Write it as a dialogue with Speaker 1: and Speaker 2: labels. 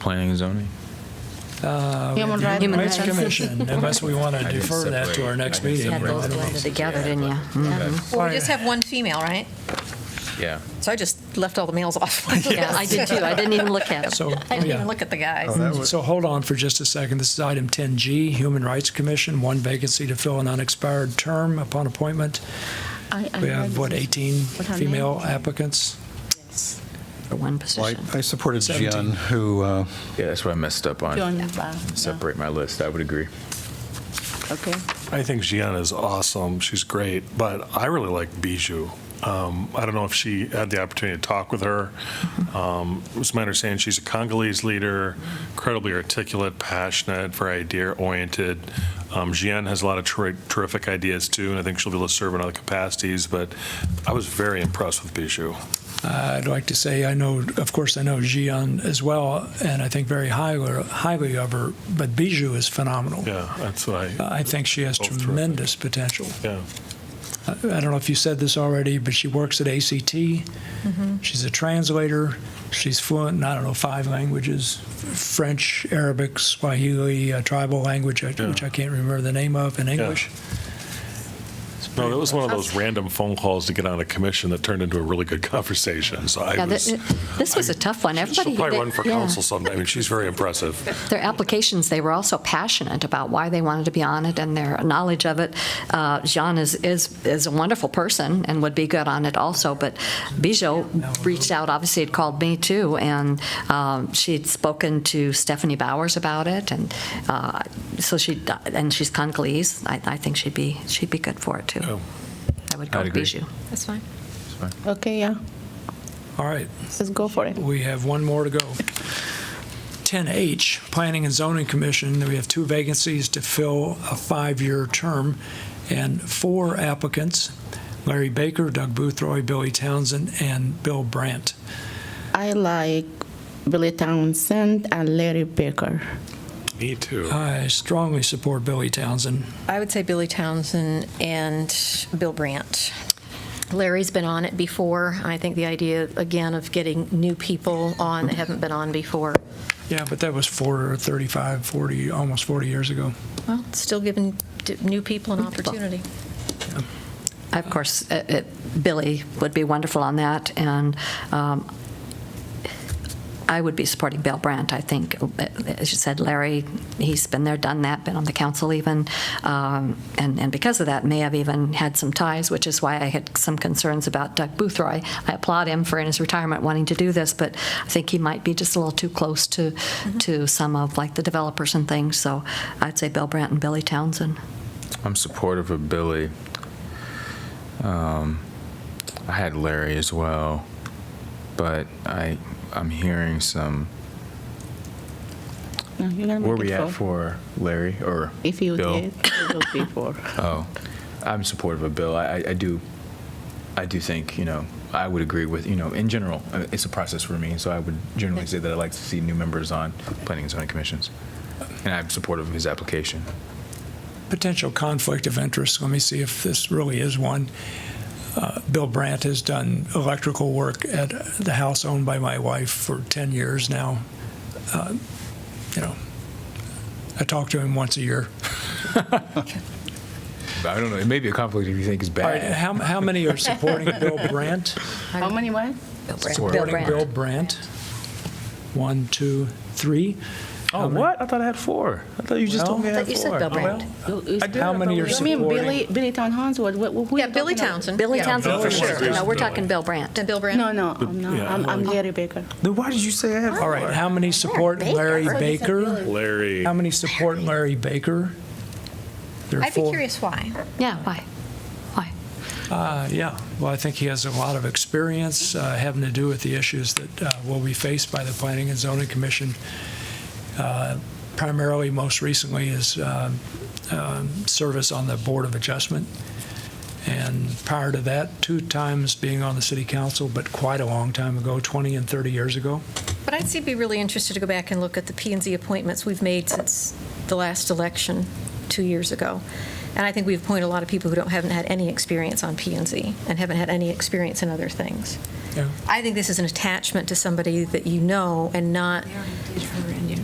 Speaker 1: planning and zoning?
Speaker 2: Human Rights
Speaker 3: Human
Speaker 4: Rights
Speaker 3: Rights.
Speaker 4: Commission, unless we want to
Speaker 1: I didn't
Speaker 4: defer that to
Speaker 1: separate-
Speaker 4: our
Speaker 1: I
Speaker 4: next
Speaker 1: didn't
Speaker 4: meeting.
Speaker 1: separate
Speaker 3: Had those
Speaker 1: them.
Speaker 3: blended together, didn't you?
Speaker 5: Well, we just have one female, right?
Speaker 1: Yeah.
Speaker 5: So I just left all the males off. my
Speaker 3: Yeah, I
Speaker 5: list.
Speaker 3: did too. I didn't even look at them.
Speaker 4: So, oh,
Speaker 5: I didn't even
Speaker 4: yeah.
Speaker 5: look at the
Speaker 3: Oh,
Speaker 5: guys.
Speaker 4: So hold on for just a second. This is item 10G, Human Rights Commission, one vacancy to fill an unexpired term upon appointment. We have, what, 18
Speaker 3: What her name
Speaker 4: female applicants?
Speaker 3: For one
Speaker 6: Well,
Speaker 3: position.
Speaker 6: I I supported
Speaker 4: Seventeen.
Speaker 6: Jen, who, uh,
Speaker 1: Yeah, that's what I messed up on. Separate my list. I would agree.
Speaker 2: Okay.
Speaker 7: I think Gian is awesome. She's great, but I really like Bijou. Um, I don't know if she had the opportunity to talk with her. Um, it was my understanding she's a Congolese leader, incredibly articulate, passionate, very idea oriented. Um, Gian has a lot of ter- terrific ideas too, and I think she'll be able to serve in other capacities. But I was very impressed with Bijou.
Speaker 4: Uh, I'd like to say, I know, of course, I know Gian as well, and I think very highly, highly of her, but Bijou is phenomenal. Uh,
Speaker 7: Yeah, that's what I.
Speaker 4: I think she has
Speaker 7: Both terrific.
Speaker 4: tremendous potential.
Speaker 7: Yeah.
Speaker 4: I I don't know if you said this already, but she works at ACT. She's a translator. She's fluent in, I don't know, five languages French, Arabic, Swahili, a tribal language, I- which I can't remember the name of, and English.
Speaker 7: No, that was one of those random phone calls to get on a commission that turned into a really good conversation. So I
Speaker 3: Yeah,
Speaker 7: was.
Speaker 3: th- This was a tough one. Everybody.
Speaker 7: She'll probably
Speaker 3: they-
Speaker 7: run for
Speaker 3: yeah.
Speaker 7: council someday. I mean, she's very impressive.
Speaker 3: Their applications, they were also passionate about why they wanted to be on it and their knowledge of it. Uh, Jean is, is, is a wonderful person and would be good on it also, but Bijou reached out, obviously had called me too, and um, she'd spoken to Stephanie Bowers about it, and uh, so she, and she's Congolese, I, I think she'd be, she'd be good for it too. I would go
Speaker 1: Oh. I'd
Speaker 3: with
Speaker 1: agree.
Speaker 3: Bijou.
Speaker 5: That's fine.
Speaker 2: Okay, yeah.
Speaker 4: All right,
Speaker 2: Let's go for it.
Speaker 4: we have one more to go. 10H, Planning and Zoning Commission. We have two vacancies to fill a five-year term and four applicants Larry Baker, Doug Boothroyd, Billy Townsend, and Bill Brandt.
Speaker 2: I like Billy Townsend and Larry Baker.
Speaker 7: Me too.
Speaker 4: I strongly support Billy Townsend.
Speaker 5: I would say Billy Townsend and Bill Brandt.
Speaker 8: Larry's been on it before. I think the idea, again, of getting new people on that haven't been on before,
Speaker 4: Yeah, but that was four, 35, 40, almost 40 years ago.
Speaker 8: well, still giving d- new people an opportunity.
Speaker 3: Of course, uh, uh, Billy would be wonderful on that, and um, I would be supporting Bill Brandt, I think. Uh, As you said, Larry, he's been there, done that, been on the council even, um, and and because of that, may have even had some ties, which is why I had some concerns about Doug Boothroyd. I applaud him for in his retirement wanting to do this, but I think he might be just a little too close to, to some of like the developers and things, so I'd say Bill Brandt and Billy Townsend.
Speaker 1: I'm supportive of Billy. Um, I had Larry as well, but I I'm hearing some.
Speaker 2: No, you gotta
Speaker 1: Where
Speaker 2: make
Speaker 1: we
Speaker 2: it
Speaker 1: at
Speaker 2: four.
Speaker 1: for Larry or
Speaker 2: If you
Speaker 1: Bill?
Speaker 2: did, it would be four.
Speaker 1: Oh, I'm supportive of Bill. I, I- I do, I do think, you know, I would agree with, you know, in general, uh, it's a process for me, so I would generally say that I like to see new members on planning and zoning commissions. And I'm supportive of his application.
Speaker 4: Potential conflict of interest, let me see if this really is one. Uh, Bill Brandt has done electrical work at the house owned by my wife for 10 years now. Uh, You know, I talk to him once a year.
Speaker 1: But I don't know, it may be a conflict if you think it's
Speaker 4: All right,
Speaker 1: bad.
Speaker 4: how, how many are supporting Bill Brandt?
Speaker 2: How many what?
Speaker 1: Support.
Speaker 4: Supporting Bill Brandt? One, two, three.
Speaker 1: Oh, what? I thought I had four. I thought you just told me I had four.
Speaker 3: You said Bill Brandt.
Speaker 4: How many are
Speaker 2: You mean
Speaker 4: supporting?
Speaker 2: Billy, Billy Townsend? What, what, who you
Speaker 5: Yeah, Billy
Speaker 2: talking about?
Speaker 5: Townsend.
Speaker 3: Billy
Speaker 5: Yeah.
Speaker 3: Townsend, for
Speaker 7: Bill
Speaker 3: sure.
Speaker 7: Brandt.
Speaker 3: No, we're talking Bill Brandt.
Speaker 5: And Bill Brandt.
Speaker 2: No, no, I'm not.
Speaker 7: yeah,
Speaker 2: I'm,
Speaker 7: I
Speaker 2: I'm
Speaker 7: like-
Speaker 2: Larry Baker.
Speaker 1: Then why did you say I had
Speaker 4: All right, how many support Larry Baker?
Speaker 7: Larry.
Speaker 4: How many support Larry Baker? There are
Speaker 5: I'd be
Speaker 4: four-
Speaker 5: curious why.
Speaker 3: Yeah, why? Why?
Speaker 4: Uh, Yeah, well, I think he has a lot of experience uh, having to do with the issues that uh, will be faced by the Planning and Zoning Commission. Uh, Primarily, most recently, is um, um, service on the Board of Adjustment. And prior to that, two times being on the city council, but quite a long time ago, 20 and 30 years ago.
Speaker 8: But I'd see- be really interested to go back and look at the P and Z appointments we've made since the last election two years ago. And I think we've appointed a lot of people who don't, haven't had any experience on P and Z and haven't had any experience in other things.
Speaker 4: Yeah.
Speaker 8: I think this is an attachment to somebody that you know and not